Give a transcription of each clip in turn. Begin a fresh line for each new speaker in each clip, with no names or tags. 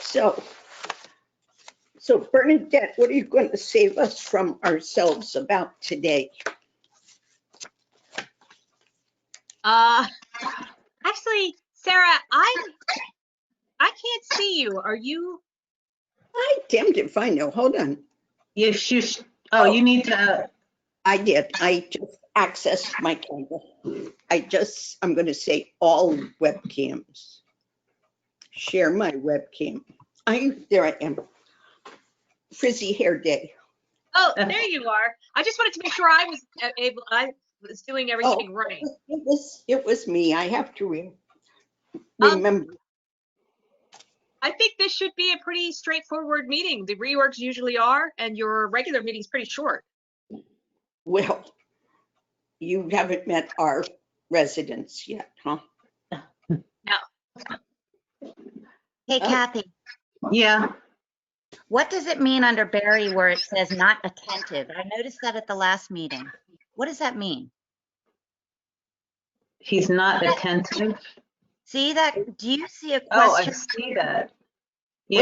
So, so Bernadette, what are you going to save us from ourselves about today?
Uh, actually, Sarah, I, I can't see you. Are you?
I damned if I know. Hold on.
Yes, you, sh- oh, you need to, uh,
I did. I just accessed my camera. I just, I'm going to say all webcams. Share my webcam. I, there I am. Frizzy hair day.
Oh,
Uh.
there you are. I just wanted to make sure I was a- able, I was doing everything right.
It was, it was me. I have to re-
Oh.
Um,
remember.
I think this should be a pretty straightforward meeting. The reorgs usually are, and your regular meeting's pretty short.
Well, you haven't met our residents yet, huh?
Hey
Oh.
Kathy,
yeah,
what does it mean under Barry where it says not attentive? I noticed that at the last meeting. What does that mean?
he's not attentive.
See that, do you see a
Oh, I
question
see that.
Was it-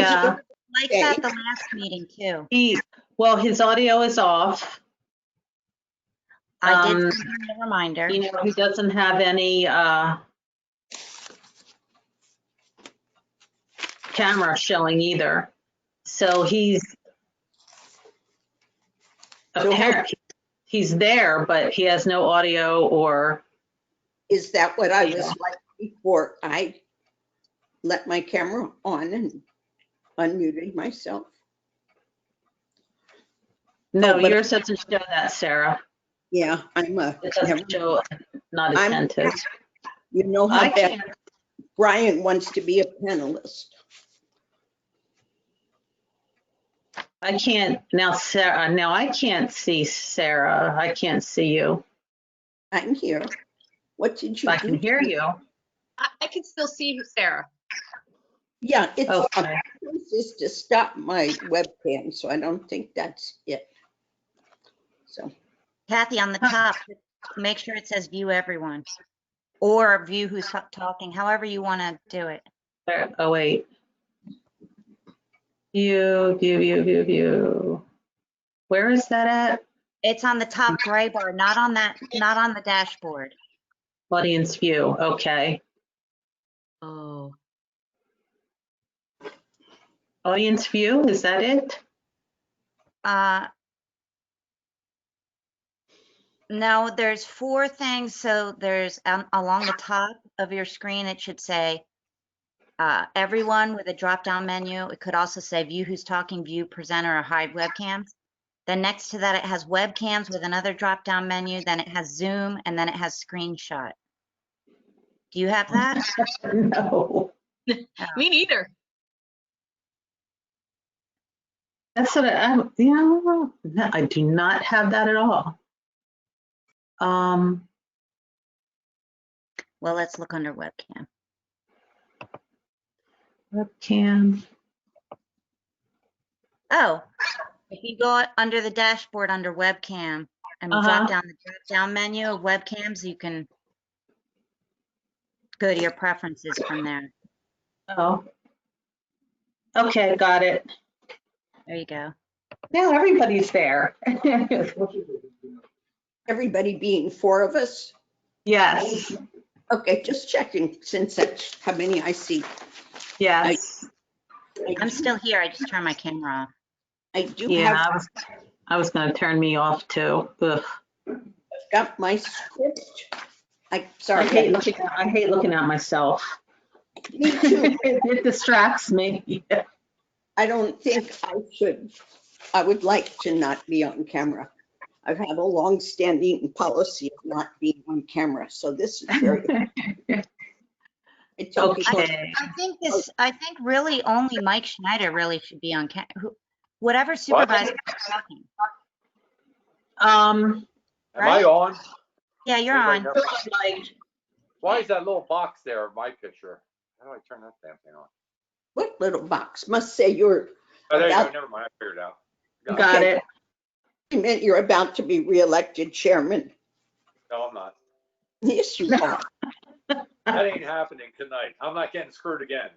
Yeah,
like
okay.
that the last meeting too?
he, well, his audio is off.
I did
Um,
send him a reminder.
You know, he doesn't have any, uh, camera showing either. So he's
So how-
apparent, he's there, but he has no audio or,
Is that what I was
Yeah.
like before I let my camera on and unmuted myself?
no,
but-
oh, yours doesn't show that, Sarah.
Yeah, I'm a,
It doesn't show not
I'm-
attentive.
you know
I
how bad
can't,
Brian wants to be a panelist.
I can't, now Sarah, uh, now I can't see Sarah. I can't see you.
I'm here. What did you
I can
do?
hear you.
I, I can still see Sarah.
Yeah, it's,
Oh, Okay.
this is to stop my webcam, so I don't think that's it. So,
Kathy, on the top, make sure it says view everyone. Or view who's ta- talking, however you want to do it.
There- Oh, wait. View, view, view, view, view. Where is that at?
It's on the top gray bar, not on that, not on the dashboard.
Audience view, okay.
Oh.
Audience view, is that it?
Uh No, there's four things. So there's um, along the top of your screen, it should say uh, everyone with a drop-down menu. It could also say view who's talking, view presenter, or hide webcams. Then next to that, it has webcams with another drop-down menu. Then it has Zoom, and then it has screenshot. Do you have that?
No.
Me neither.
That's what I, I- yeah, no, I do not have that at all. Um,
Well, let's look under webcam.
webcam,
Oh, if you go under the dashboard under webcam and
Uh-huh.
drop down the drop down menu of webcams, you can go to your preferences from there.
oh. Okay, got it.
There you go.
Now everybody's there.
everybody being four of us,
Yes,
okay, just checking since that's how many I see.
yes.
I'm still here. I just turned my camera off.
I do
Yeah,
have
I was, I was gonna turn me off too. Ugh.
got my script. I,
I
sorry.
hate looking, at- I hate looking at myself.
Me too.
It distracts me.
I don't think I should, I would like to not be on camera. I've had a long-standing policy of not being on camera, so this is very. It's okay.
Okay,
I think this, I think really only Mike Schneider really should be on cam, who- whatever supervisor is talking.
um,
Am I
Right?
on?
Yeah, you're
Everybody
on.
know- Why is that little box there of my picture? How do I turn that damn thing on?
What little box? Must say you're,
Oh, there you
Yeah.
go. Never mind. I figured it out. Got it.
got it.
you meant you're about to be reelected chairman.
No, I'm not.
Yes, you are.
That ain't happening tonight. I'm not getting screwed again.